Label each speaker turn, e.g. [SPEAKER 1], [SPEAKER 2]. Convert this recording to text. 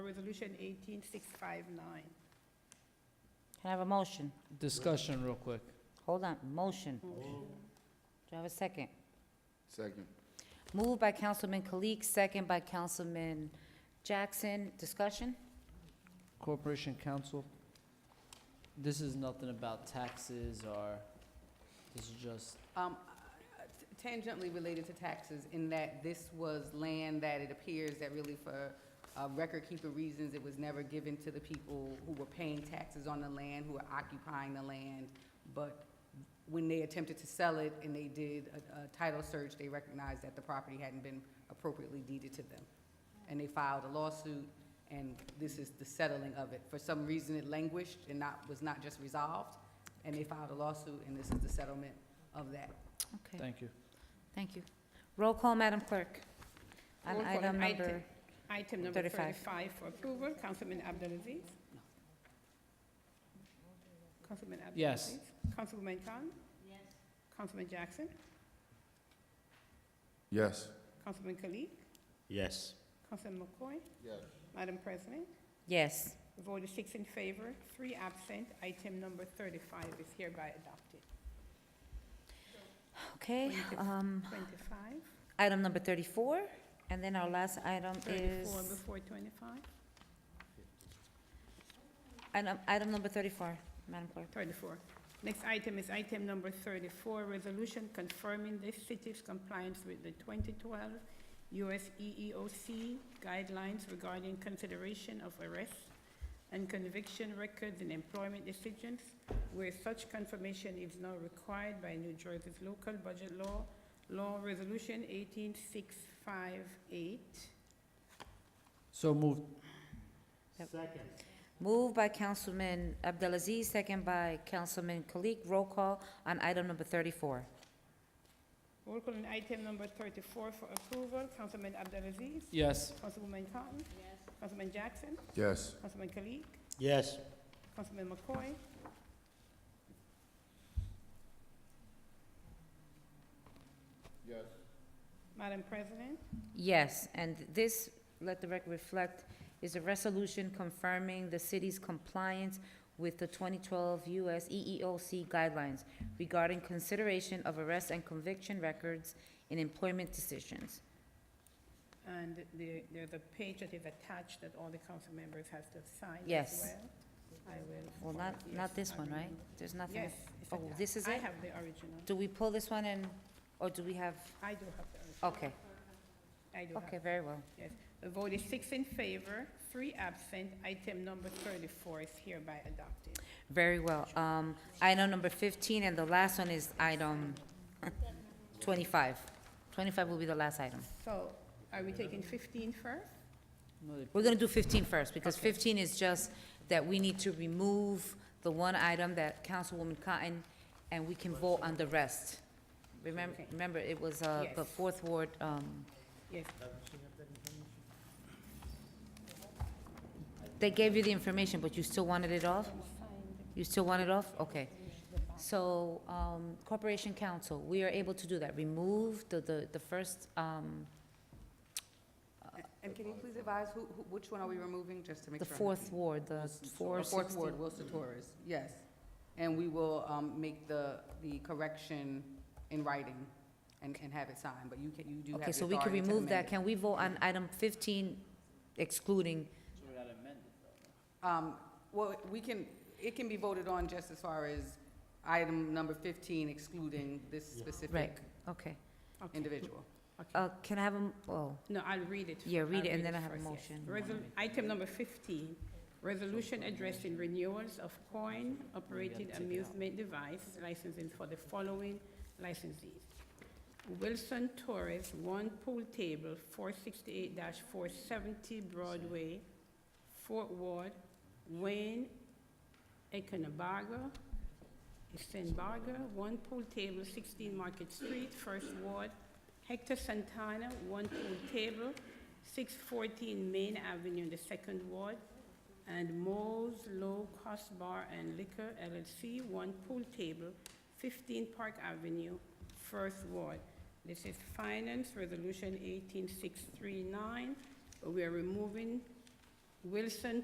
[SPEAKER 1] Resolution 18659.
[SPEAKER 2] Can I have a motion?
[SPEAKER 3] Discussion real quick.
[SPEAKER 2] Hold on, motion. Do I have a second?
[SPEAKER 4] Second.
[SPEAKER 2] Moved by Councilman Kalik, second by Councilman Jackson. Discussion?
[SPEAKER 3] Corporation Council, this is nothing about taxes or, this is just,
[SPEAKER 5] Um, Tangentially related to taxes in that this was land that it appears that really for uh, record-keeper reasons, it was never given to the people who were paying taxes on the land, who were occupying the land. But when they attempted to sell it and they did a a title search, they recognized that the property hadn't been appropriately deeded to them. And they filed a lawsuit, and this is the settling of it. For some reason, it languished and not, was not just resolved, and they filed a lawsuit, and this is the settlement of that.
[SPEAKER 2] Okay,
[SPEAKER 3] thank you.
[SPEAKER 2] thank you. Roll call, Madam Clerk. On
[SPEAKER 1] Roll call on
[SPEAKER 2] item
[SPEAKER 1] item-
[SPEAKER 2] number,
[SPEAKER 1] Item number
[SPEAKER 2] 35.
[SPEAKER 1] 35 for approval, Councilman Abdelaziz. Councilman Abdelaziz.
[SPEAKER 3] Yes.
[SPEAKER 1] Councilwoman Khan. Yes. Councilman Jackson.
[SPEAKER 4] Yes.
[SPEAKER 1] Councilman Kalik.
[SPEAKER 6] Yes.
[SPEAKER 1] Councilman McCoy.
[SPEAKER 4] Yes.
[SPEAKER 1] Madam President,
[SPEAKER 2] yes.
[SPEAKER 1] the vote is six in favor, three absent. Item number 35 is hereby adopted.
[SPEAKER 2] Okay, um,
[SPEAKER 1] 25,
[SPEAKER 2] item number thirty-four, and then our last item
[SPEAKER 1] 34
[SPEAKER 2] is,
[SPEAKER 1] before 25,
[SPEAKER 2] item, item number thirty-four, Madam Clerk.
[SPEAKER 1] 34. Next item is item number 34, resolution confirming the city's compliance with the 2012 US EEOC E guidelines regarding consideration of arrests and conviction records in employment decisions where such confirmation is now required by New Jersey's local budget law, Law Resolution 18658.
[SPEAKER 3] So moved.
[SPEAKER 2] Moved by Councilman Abdelaziz, second by Councilman Kalik. Roll call on item number thirty-four.
[SPEAKER 1] Roll call on item number 34 for approval, Councilman Abdelaziz,
[SPEAKER 3] Yes.
[SPEAKER 1] Councilwoman Cotton. Yes. Councilman Jackson,
[SPEAKER 4] Yes.
[SPEAKER 1] Councilman Kalik,
[SPEAKER 6] Yes.
[SPEAKER 1] Councilman McCoy.
[SPEAKER 4] Yes.
[SPEAKER 1] Madam President,
[SPEAKER 2] Yes, and this, let the record reflect, is a resolution confirming the city's compliance with the 2012 U.S. EEOC E guidelines regarding consideration of arrest and conviction records in employment decisions.
[SPEAKER 1] and the- there's a page that is attached that all the council members have to sign as well.
[SPEAKER 2] Yes.
[SPEAKER 1] I will.
[SPEAKER 2] Well,
[SPEAKER 1] forward-
[SPEAKER 2] not,
[SPEAKER 1] yes,
[SPEAKER 2] not this
[SPEAKER 1] I
[SPEAKER 2] one, right?
[SPEAKER 1] remember.
[SPEAKER 2] There's nothing.
[SPEAKER 1] Yes. it's
[SPEAKER 2] Oh,
[SPEAKER 1] attached.
[SPEAKER 2] this is
[SPEAKER 1] I
[SPEAKER 2] it?
[SPEAKER 1] have the original.
[SPEAKER 2] Do we pull this one and, or do we have,
[SPEAKER 1] I do have the original.
[SPEAKER 2] okay,
[SPEAKER 1] I do have
[SPEAKER 2] okay, very well.
[SPEAKER 1] Yes, the vote is six in favor, three absent. Item number 34 is hereby adopted.
[SPEAKER 2] Very well. Um, item number fifteen, and the last one is item twenty-five. Twenty-five will be the last item.
[SPEAKER 1] So are we taking 15 first?
[SPEAKER 3] Another-
[SPEAKER 2] We're gonna do 15 first, because fifteen is just that we need to remove the one item that Councilwoman Cotton, and we can vote on the rest. Remember,
[SPEAKER 1] Okay.
[SPEAKER 2] remember, it was, uh, the
[SPEAKER 1] Yes.
[SPEAKER 2] fourth ward, um,
[SPEAKER 1] Yes,
[SPEAKER 2] they gave you the information, but you still wanted it off? You still want it off? Okay. So, um, Corporation Council, we are able to do that, remove the, the, the first, um,
[SPEAKER 5] And can you please advise who, who- which one are we removing, just to make
[SPEAKER 2] the
[SPEAKER 5] sure? I'm-
[SPEAKER 2] fourth ward, the
[SPEAKER 5] The
[SPEAKER 2] four
[SPEAKER 5] fourth
[SPEAKER 2] sixty.
[SPEAKER 5] ward, Wilson Torres, yes. And we will um, make the, the correction in writing and, and have it signed, but you can, you do have the
[SPEAKER 2] Okay, so we can
[SPEAKER 5] authority to
[SPEAKER 2] remove
[SPEAKER 5] amend
[SPEAKER 2] that.
[SPEAKER 5] it.
[SPEAKER 2] Can we vote on item fifteen excluding
[SPEAKER 5] Um, Well, we can, it can be voted on just as far as item number 15 excluding this
[SPEAKER 2] Right,
[SPEAKER 5] specific
[SPEAKER 2] okay.
[SPEAKER 1] okay.
[SPEAKER 5] individual.
[SPEAKER 2] Uh, can I have a, m- oh,
[SPEAKER 1] No, I'll read it.
[SPEAKER 2] Yeah, read
[SPEAKER 1] I'll
[SPEAKER 2] it, and then I have a
[SPEAKER 1] first, yes.
[SPEAKER 2] motion.
[SPEAKER 1] Resol- Item number 15, resolution addressing renewals of coin-operated amusement device licensing for the following licensees. Wilson Torres, One Pool Table, 468-470 Broadway, Fort Ward, Wayne, Econobaga, Stenbaga, One Pool Table, 16 Market Street, First Ward, Hector Santana, One Pool Table, 614 Main Avenue, in the Second Ward, and Mo's Low Cost Bar and Liquor LLC, One Pool Table, 15 Park Avenue, First Ward. This is Finance Resolution 18639. We are removing Wilson